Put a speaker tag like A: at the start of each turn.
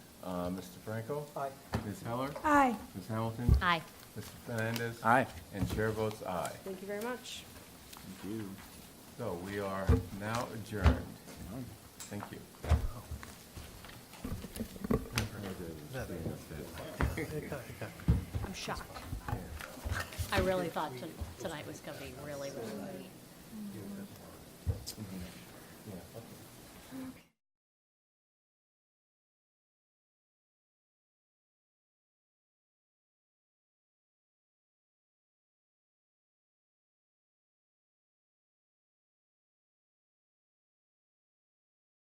A: Uh, Mr. Franco?
B: Aye.
A: Ms. Heller?
C: Aye.
A: Ms. Hamilton?
D: Aye.
A: Mr. Fernandez?
E: Aye.
A: And chair votes aye.
B: Thank you very much.
E: Thank you.
A: So we are now adjourned. Thank you.
D: I'm shocked. I really thought ton- tonight was going to be really, really late.